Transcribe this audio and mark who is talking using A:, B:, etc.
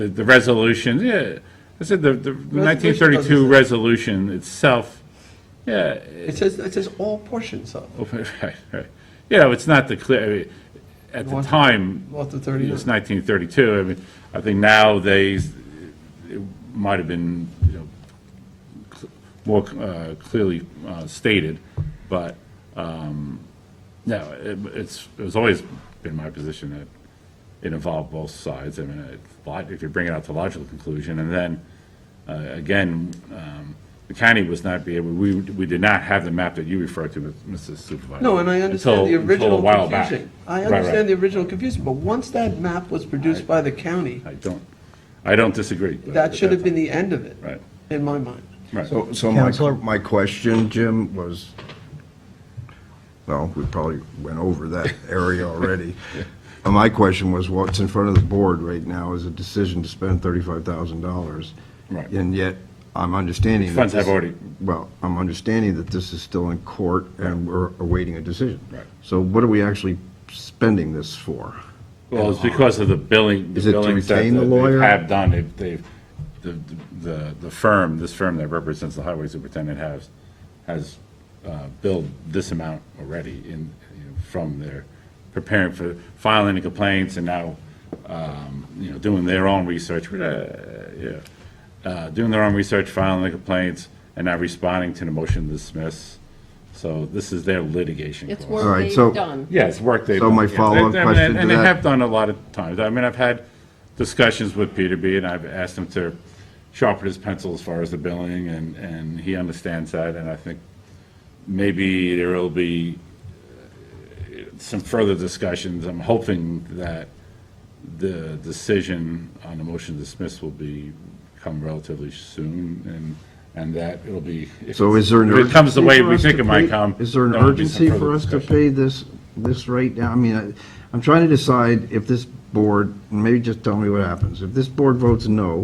A: The, the resolution, yeah, I said the, the nineteen thirty-two
B: doesn't-
A: resolution itself, yeah,
B: It says, it says all portions of,
A: okay, right, right. You know, it's not the clear, I mean, at the
B: North-
A: time,
B: north of
A: it
B: 30.
A: was nineteen thirty-two, I mean, I think now they, it might have been, you know, cl- more, uh, clearly, uh, stated, but, um, no, it, it's, it's always been my position that it involved both sides, I mean, it's lot, if you bring it out to logical conclusion, and then, uh, again, um, the county was not be able, we, we did not have the map that you referred to, Mrs. Supervisor.
B: No, and I understand the
A: until- until a
B: original
A: while back.
B: confusion. I
A: Right, right.
B: understand the original confusion, but once that map was produced by the county,
A: I don't, I don't disagree. but
B: that should have
A: that's-
B: been the end of it,
A: Right,
B: in my mind.
A: right.
C: So, so my,
D: Counselor?
C: my question, Jim, was, well, we probably went over that area already. Uh, My question was, what's in front of the board right now is a decision to spend $35,000.
A: Right.
C: And yet, I'm understanding. that
A: Funds have
C: this-
A: already-
C: Well, I'm understanding that this is still in court and we're awaiting a decision.
A: Right.
C: So what are we actually spending this for?
A: Well, it's because of the billing, the
C: Is it to
A: billings that
C: retain the
A: they
C: lawyer?
A: have done, they've, they've, the, the, the firm, this firm that represents the highway superintendent has, has uh, billed this amount already in, you know, from their, preparing for filing the complaints and now, um, you know, doing their own research, but, uh, yeah. uh, doing their own research, filing the complaints, and now responding to the motion to dismiss. So this is their litigation
E: It's
A: cost.
C: All
E: work
C: right,
E: they've
C: so-
E: done.
A: Yeah, it's work they've.
C: So my
A: done, yes.
C: follow-up
A: They- I mean,
C: question to
A: And they
C: that-
A: have done a lot of times. I mean, I've had discussions with Peterby, and I've asked him to sharpen his pencil as far as the billing, and, and he understands that, and I think maybe there will be uh, some further discussions. I'm hoping that the decision on the motion to dismiss will be, come relatively soon, and, and that it'll be. if
C: So
A: it's-
C: is there an
A: If it comes the
C: urgency
A: way
C: for
A: we
C: us
A: think
C: to
A: it might
C: pay-
A: come.
C: Is there an
A: there'll be some
C: urgency
A: further
C: for us to
A: discussion.
C: pay this, this right now? I mean, I- I'm trying to decide if this board, maybe just tell me what happens. If this board votes no,